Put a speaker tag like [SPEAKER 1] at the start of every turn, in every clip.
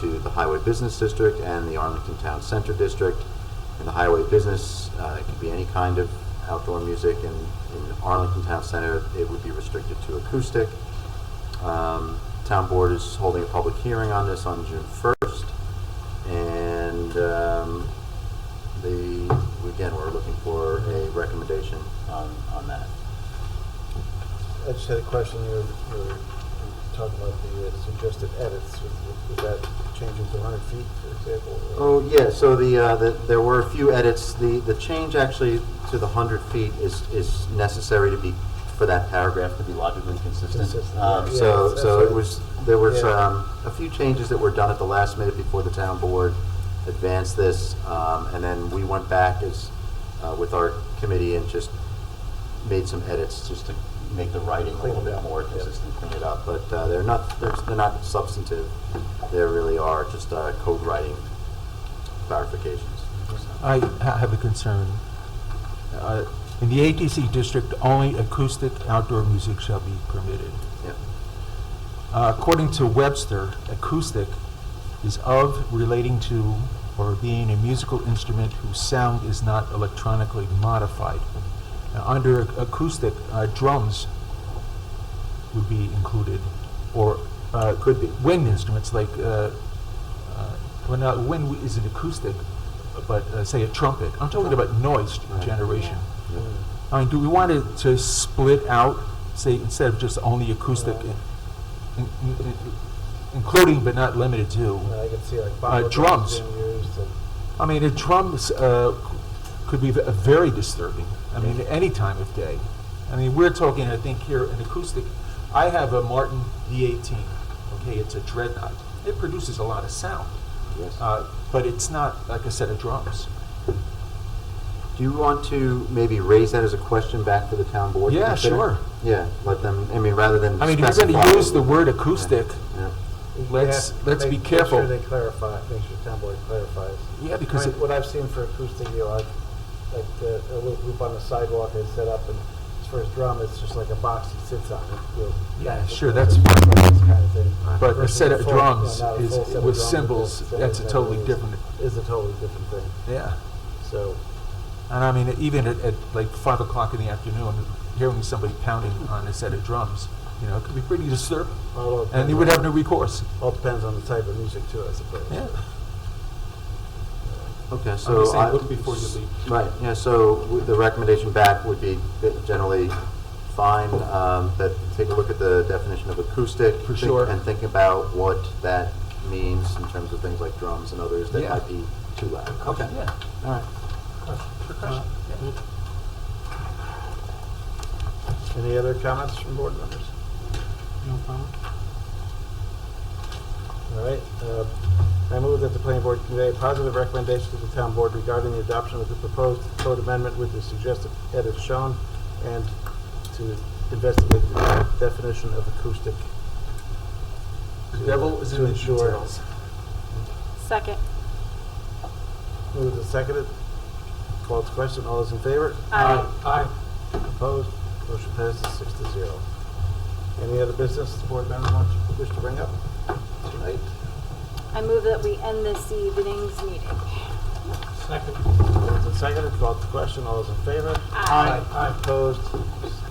[SPEAKER 1] to the Highway Business District and the Arlington Town Center District. In the Highway Business, uh, it could be any kind of outdoor music, and in Arlington Town Center, it would be restricted to acoustic. Um, Town Board is holding a public hearing on this on June 1st, and um, the, again, we're looking for a recommendation on, on that.
[SPEAKER 2] I just had a question, you were, you were talking about the uh, suggested edits, was, was that changing to hundred feet, for example? or-
[SPEAKER 1] Oh, yeah, so the, uh, the, there were a few edits. The, the change actually to the hundred feet is, is necessary to be, for that paragraph to be logically consistent.
[SPEAKER 2] Consistent,
[SPEAKER 1] Um,
[SPEAKER 2] yeah,
[SPEAKER 1] so,
[SPEAKER 2] yeah,
[SPEAKER 1] so it
[SPEAKER 2] that's
[SPEAKER 1] was, there was,
[SPEAKER 2] Yeah.
[SPEAKER 1] um, a few changes that were done at the last minute before the town board advanced this. Um, and then we went back as, uh, with our committee and just made some edits just to make the writing a
[SPEAKER 2] Clean
[SPEAKER 1] little
[SPEAKER 2] it
[SPEAKER 1] bit
[SPEAKER 2] up,
[SPEAKER 1] more
[SPEAKER 2] yeah.
[SPEAKER 1] consistent, clean it up. But, uh, they're not, they're, they're not substantive. They really are just, uh, code writing clarifications.
[SPEAKER 3] I ha- have a concern. Uh, In the ATC district, only acoustic outdoor music shall be permitted.
[SPEAKER 1] Yeah.
[SPEAKER 3] Uh, According to Webster, acoustic is of relating to or being a musical instrument whose sound is not electronically modified. Now, Under ac- acoustic, uh, drums would be included, or uh,
[SPEAKER 1] Could be.
[SPEAKER 3] wind instruments like, uh, uh, well, now wind isn't acoustic, but uh, say a trumpet. I'm talking about noise
[SPEAKER 1] Right.
[SPEAKER 3] generation.
[SPEAKER 1] Yeah.
[SPEAKER 2] Hmm.
[SPEAKER 3] I mean, do we want to, to split out, say, instead of just only acoustic, in, in, in, including but not limited to?
[SPEAKER 2] Uh, I could see like bottle
[SPEAKER 3] drums.
[SPEAKER 2] drums being used and.
[SPEAKER 3] I mean, a drum is, uh, c- could be v- uh, very disturbing. I mean, any time of day. I mean, we're talking, I think, here an acoustic. I have a Martin D18. Okay, it's a dreadnought. It produces a lot of sound,
[SPEAKER 1] Yes.
[SPEAKER 3] uh, but it's not like a set of drums.
[SPEAKER 1] Do you want to maybe raise that as a question back to the town board? to
[SPEAKER 3] Yeah,
[SPEAKER 1] consider?
[SPEAKER 3] sure.
[SPEAKER 1] Yeah, let them, I mean, rather than.
[SPEAKER 3] I mean, if you're going to
[SPEAKER 1] specify-
[SPEAKER 3] use the word acoustic,
[SPEAKER 1] Yeah,
[SPEAKER 2] you
[SPEAKER 3] Let's-
[SPEAKER 2] have-
[SPEAKER 3] let's
[SPEAKER 2] make-
[SPEAKER 3] be careful.
[SPEAKER 2] Make sure they clarify, make sure town board clarifies.
[SPEAKER 3] yeah, because
[SPEAKER 2] Right,
[SPEAKER 3] it,
[SPEAKER 2] What I've seen for acoustic, you know, like, like the, a little group on the sidewalk is set up and as for his drum, it's just like a box he sits on, you know.
[SPEAKER 3] Yeah,
[SPEAKER 2] with
[SPEAKER 3] sure,
[SPEAKER 2] the-
[SPEAKER 3] that's
[SPEAKER 2] with this kind of thing.
[SPEAKER 3] but a
[SPEAKER 2] Versus
[SPEAKER 3] set of
[SPEAKER 2] full- you know,
[SPEAKER 3] drums
[SPEAKER 2] not a
[SPEAKER 3] is
[SPEAKER 2] full set of
[SPEAKER 3] with
[SPEAKER 2] drums,
[SPEAKER 3] cymbals.
[SPEAKER 2] just
[SPEAKER 3] That's a
[SPEAKER 2] that
[SPEAKER 3] totally
[SPEAKER 2] is-
[SPEAKER 3] different.
[SPEAKER 2] Is a totally different thing,
[SPEAKER 3] Yeah.
[SPEAKER 2] so.
[SPEAKER 3] And I mean, even at, at like five o'clock in the afternoon, hearing somebody pounding on a set of drums, you know, it could be pretty disturbing.
[SPEAKER 2] although it
[SPEAKER 3] And
[SPEAKER 2] depends
[SPEAKER 3] you would
[SPEAKER 2] on-
[SPEAKER 3] have no recourse.
[SPEAKER 2] All depends on the type of music too, I suppose.
[SPEAKER 3] Yeah.
[SPEAKER 1] okay,
[SPEAKER 3] I'm just
[SPEAKER 1] so. I-
[SPEAKER 3] saying, look before you leap.
[SPEAKER 1] Right, yeah, so w- the recommendation back would be that generally fine, um, that take a look at the definition of acoustic.
[SPEAKER 3] For
[SPEAKER 1] think-
[SPEAKER 3] sure.
[SPEAKER 1] And think about what that means in terms of things like drums and others that
[SPEAKER 3] Yeah.
[SPEAKER 1] might be too loud. Okay,
[SPEAKER 3] Yeah.
[SPEAKER 1] all right.
[SPEAKER 3] Percussion. yeah.
[SPEAKER 2] Any other comments from board members? No comment. All right, uh, I move that the planning board convey a positive recommendation to the town board regarding the adoption of the proposed code amendment with the suggested edits shown and to investigate the definition of acoustic.
[SPEAKER 3] The Uh, devil is
[SPEAKER 2] To
[SPEAKER 3] in the
[SPEAKER 2] ensure-
[SPEAKER 3] details.
[SPEAKER 4] Second.
[SPEAKER 2] Moved and seconded. Called to question. All those in favor?
[SPEAKER 3] Aye.
[SPEAKER 2] Opposed? Motion passes six to zero. Any other business the board member wants, wish to bring up tonight?
[SPEAKER 4] I move that we end this evening's meeting.
[SPEAKER 2] Moved and seconded, called to question, all those in favor?
[SPEAKER 4] Aye.
[SPEAKER 2] Aye. Opposed?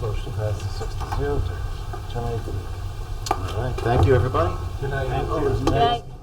[SPEAKER 2] Motion passes six to zero, to terminate the meeting.
[SPEAKER 1] All right, thank you, everybody.
[SPEAKER 3] Good night.
[SPEAKER 4] Good night.